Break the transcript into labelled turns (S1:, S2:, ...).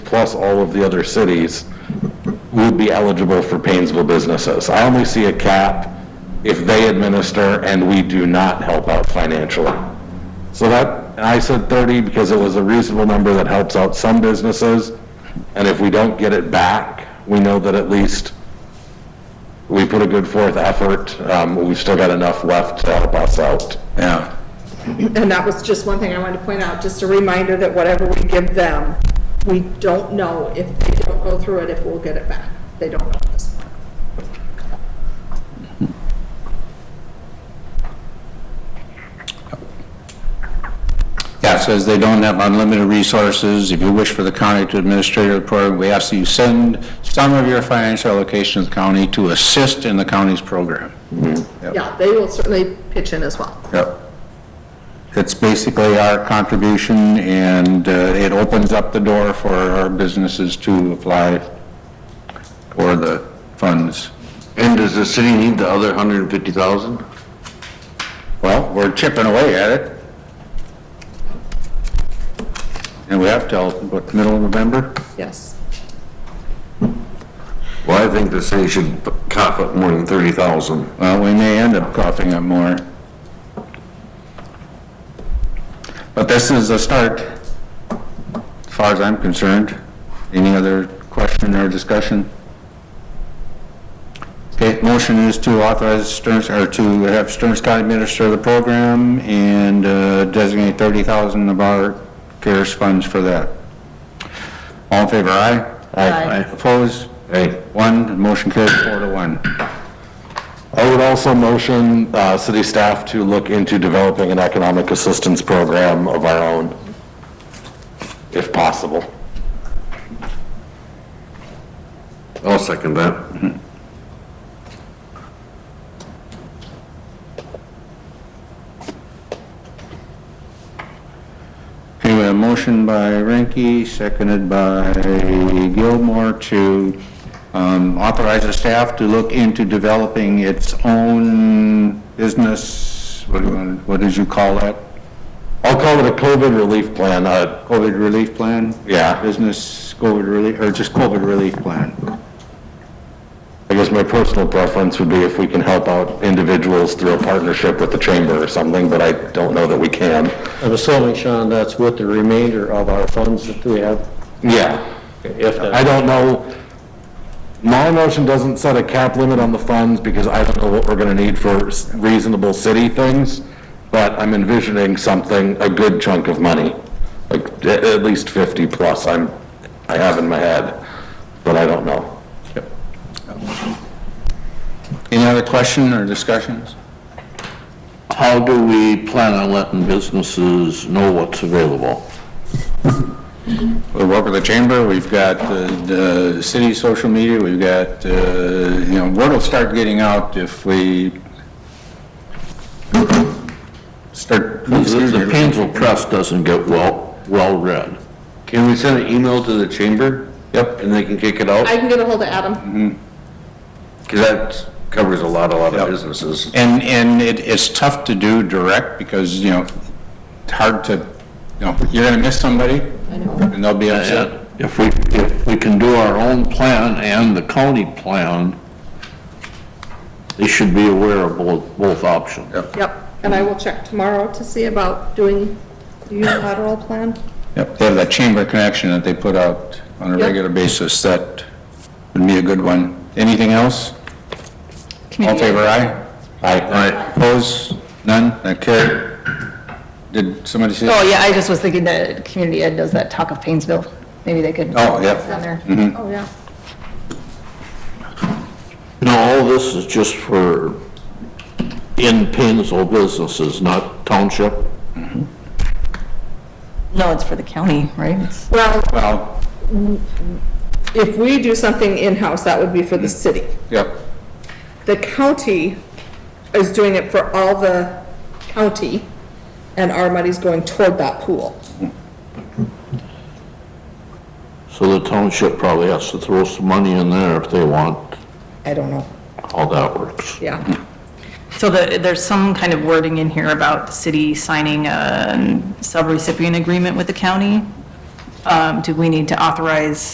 S1: plus all of the other cities, would be eligible for Painesville businesses. I only see a cap if they administer and we do not help out financially. So that, and I said 30 because it was a reasonable number that helps out some businesses. And if we don't get it back, we know that at least we put a good forth effort. Um, We've still got enough left to help us out.
S2: Yeah.
S3: And that was just one thing I wanted to point out, just a reminder that whatever we give them, we don't know if they don't go through it, if we'll get it back. They don't know at this point.
S2: Yeah, it says they don't have unlimited resources. If you wish for the county to administer the program, we ask that you send some of your financial allocations to the county to assist in the county's program. Yep.
S3: Yeah, they will certainly pitch in as well.
S2: Yep. It's basically our contribution, and uh, it opens up the door for our businesses to apply for the funds.
S4: And does the city need the other hundred and fifty thousand?
S2: Well, we're chipping away at it. And we have till, what, middle of November?
S3: Yes.
S4: Well, I think the city should cough up more than thirty thousand.
S2: Well, we may end up coughing up more. But this is a start, as far as I'm concerned. Any other question or discussion? Okay, motion is to authorize Stearns, or to have Stearns County administer the program and uh, designate 30,000 of our CARES funds for that. All in favor, aye?
S3: Aye.
S2: Opposed?
S4: Hey,
S2: One, motion carries four to one.
S1: I would also motion uh, city staff to look into developing an economic assistance program of our own, if possible.
S4: I'll second that.
S2: Okay, we have a motion by Ranky, seconded by Gilmore to um, authorize the staff to look into developing its own business, what do you want- what did you call that?
S1: I'll call it a COVID relief plan, uh,
S2: COVID relief plan?
S1: Yeah.
S2: Business COVID relief, or just COVID relief plan?
S1: I guess my personal preference would be if we can help out individuals through a partnership with the chamber or something, but I don't know that we can.
S5: I'm assuming, Sean, that's with the remainder of our funds that we have,
S1: Yeah.
S5: if
S1: I
S5: that,
S1: don't know, my motion doesn't set a cap limit on the funds because I don't know what we're gonna need for s- reasonable city things, but I'm envisioning something, a good chunk of money, like a- at least 50 plus, I'm, I have in my head, but I don't know.
S2: Any other question or discussions?
S4: How do we plan on letting businesses know what's available?
S2: We'll work with the chamber, we've got uh, the city social media, we've got, uh, you know, word will start getting out if we start.
S4: The- The Painesville Press doesn't get well, well read. Can we send an email to the chamber? Yep. And they can kick it out?
S3: I can get a hold of
S2: Mm-hmm.
S3: Adam.
S4: Cause that covers a lot, a lot of businesses.
S2: And, and it, it's tough to do direct because, you know, it's hard to, you know, you're gonna miss somebody
S3: I know.
S2: and they'll be upset.
S4: And If we, if we can do our own plan and the county plan, they should be aware of both, both options.
S3: Yep, and I will check tomorrow to see about doing the unilateral plan.
S2: Yep, they have that chamber connection that they put out on a
S3: Yep.
S2: regular basis, that would be a good one. Anything else? All in favor, aye? Aye. Opposed? None? That carried. Did somebody see?
S6: Oh, yeah, I just was thinking that Community Ed does that Talk of Painesville. Maybe they could.
S2: Oh, yeah.
S6: It's on there.
S3: Oh, yeah.
S4: No, all this is just for in Painesville businesses, not township.
S6: No, it's for the county, right? It's-
S3: Well,
S2: Well,
S3: if we do something in-house, that would be for the city.
S2: Mm-hmm. yep,
S3: The county is doing it for all the county, and our money's going toward that pool.
S4: So the township probably has to throw some money in there if they want
S3: I don't know,
S4: how that works.
S3: yeah.
S6: So the, there's some kind of wording in here about the city signing a subrecipient agreement with the county. um, do we need to authorize